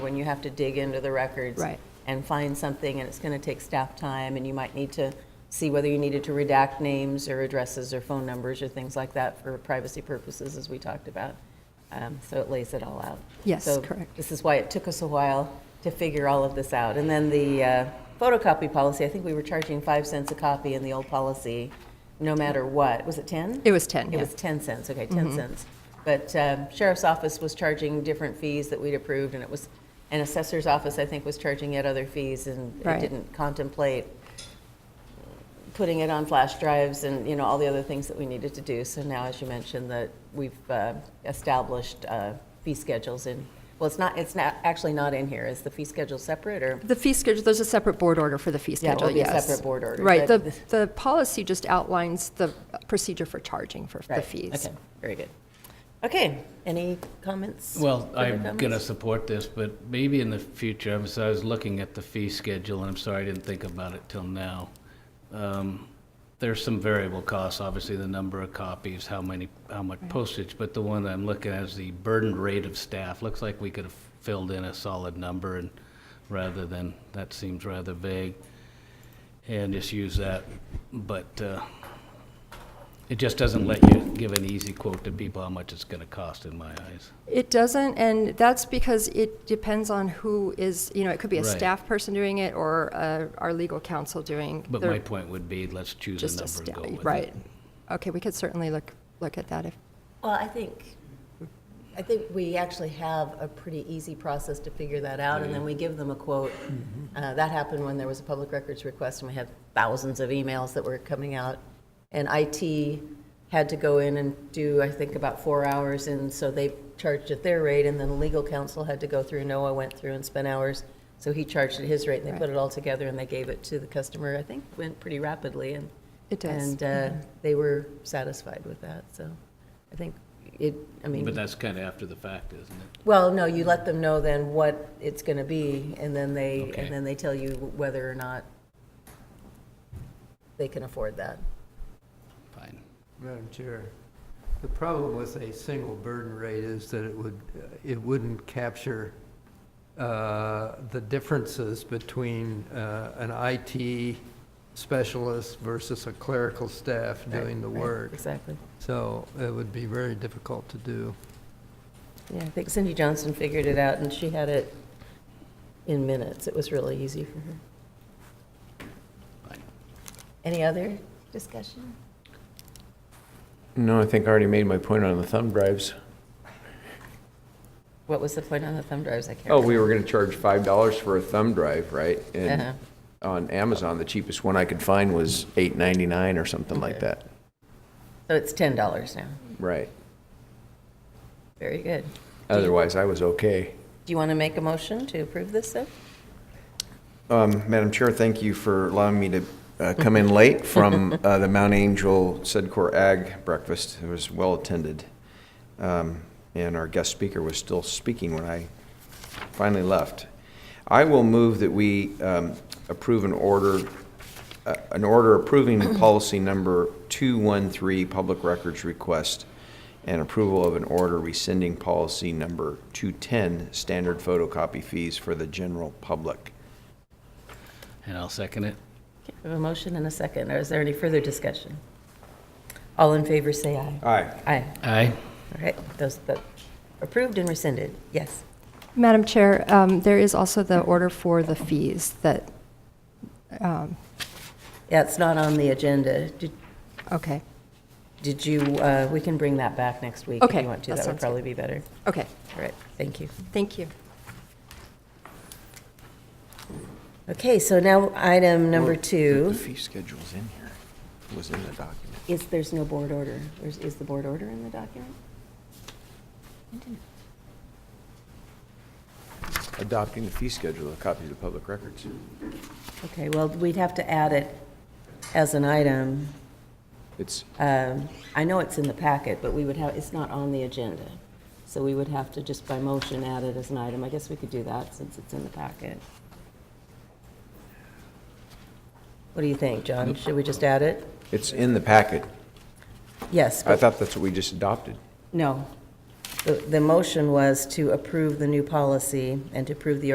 when you have to dig into the records. Right. And find something, and it's going to take staff time, and you might need to see whether you needed to redact names or addresses or phone numbers or things like that for privacy purposes, as we talked about. Um, So it lays it all out. Yes, So correct. This is why it took us a while to figure all of this out. And then the uh, photocopy policy, I think we were charging five cents a copy in the old policy, no matter what. Was it 10? It was 10, It yeah. Mm-hmm. was 10 cents, okay, 10 cents. But um, sheriff's office was charging different fees that we'd approved, and it was, and assessor's office, I think, was charging yet other fees, and it Right. didn't contemplate putting it on flash drives and, you know, all the other things that we needed to do. So now, as you mentioned, that we've uh, established uh, fee schedules in, well, it's not, it's not, actually not in here. Is the fee schedule separate, or? The fee schedule, there's a separate board order for the fee Yeah, it schedule, would be a yes. separate board order, Right, but the, this- the policy just outlines the procedure for charging for the Right, fees. Okay, very good. Okay, any comments? Well, Further I'm going to comments? support this, but maybe in the future, I was, I was looking at the fee schedule, and I'm sorry I didn't think about it till now. Um, There's some variable costs, obviously, the number of copies, how many, how much postage, but the one I'm looking at is the burden rate of staff. Looks like we could have filled in a solid number and, rather than, that seems rather vague, and just use that. But, uh, it just doesn't let you give an easy quote to people how much it's going to cost, in my eyes. It doesn't, and that's because it depends on who is, you know, it could be a Right. staff person doing it or uh, our legal counsel doing. But their- my point would be, let's choose just a a number and staff, go with it. right. Okay, we could certainly look, look at that if, Well, I think, I think we actually have a pretty easy process to figure that out, and then we give them a quote. Uh, That happened when there was a public records request, and we had thousands of emails that were coming out. And IT had to go in and do, I think, about four hours, and so they charged at their rate, and then legal counsel had to go through, Noah went through and spent hours, so he charged at his rate, and they put it all together, and they gave it to the customer, I think, went pretty rapidly, and. It does. And uh, Mm-hmm. they were satisfied with that, so I think it, I But mean, that's kind of after the fact, isn't it? well, no, you let them know then what it's going to be, and then they, Okay. and then they tell you whether or not they can afford that. Fine. Madam Chair, the problem with a single burden rate is that it would, uh, it wouldn't capture uh, the differences between uh, an IT specialist versus a clerical staff doing the Right, right, work. Exactly. So it would be very difficult to do. Yeah, I think Cindy Johnson figured it out, and she had it in minutes. It was really easy for her. Fine. Any other discussion? No, I think I already made my point on the thumb drives. What was the point on the thumb drives? I can't. Oh, we were gonna charge five dollars for a thumb drive, right? Uh-huh. And on Amazon, the cheapest one I could find was eight ninety-nine or something like Okay. that. So it's $10 now. Right. Very good. Otherwise, I was okay. Do you want to make a motion to approve this, then? Um, Madam Chair, thank you for allowing me to uh, come in late from uh, the Mount Angel Sedcor Ag breakfast. It was well-attended, Um, and our guest speaker was still speaking when I finally left. I will move that we um, approve an order, uh, an order approving policy number 213, public records request, and approval of an order rescinding policy number 210, standard photocopy fees for the general public. And I'll second it. Okay, We have a motion and a second. Or is there any further discussion? All in favor, say aye. Aye. Aye. Aye. All right, those that approved and rescinded, yes. Madam Chair, um, there is also the order for the fees that, um, Yeah, it's not on the agenda. Did okay, did you, uh, we can bring that back next week if Okay, you want to. that That would sounds good. probably be better. okay, All right, thank you. thank you. Okay, so now item number Well, the- The two fee schedule's in here, It was in the document. is, there's no board order. Is is the board order in the document? Adopting the fee schedule, a copy to the public records. Okay, well, we'd have to add it as an item. It's, Um, I know it's in the packet, but we would have, it's not on the agenda. So we would have to just by motion add it as an item. I guess we could do that since it's in the packet. What do you think, John? Should we just add it? it's in the packet. Yes, I but, thought that's what we just adopted. no. the, the motion was to approve the new policy and to approve the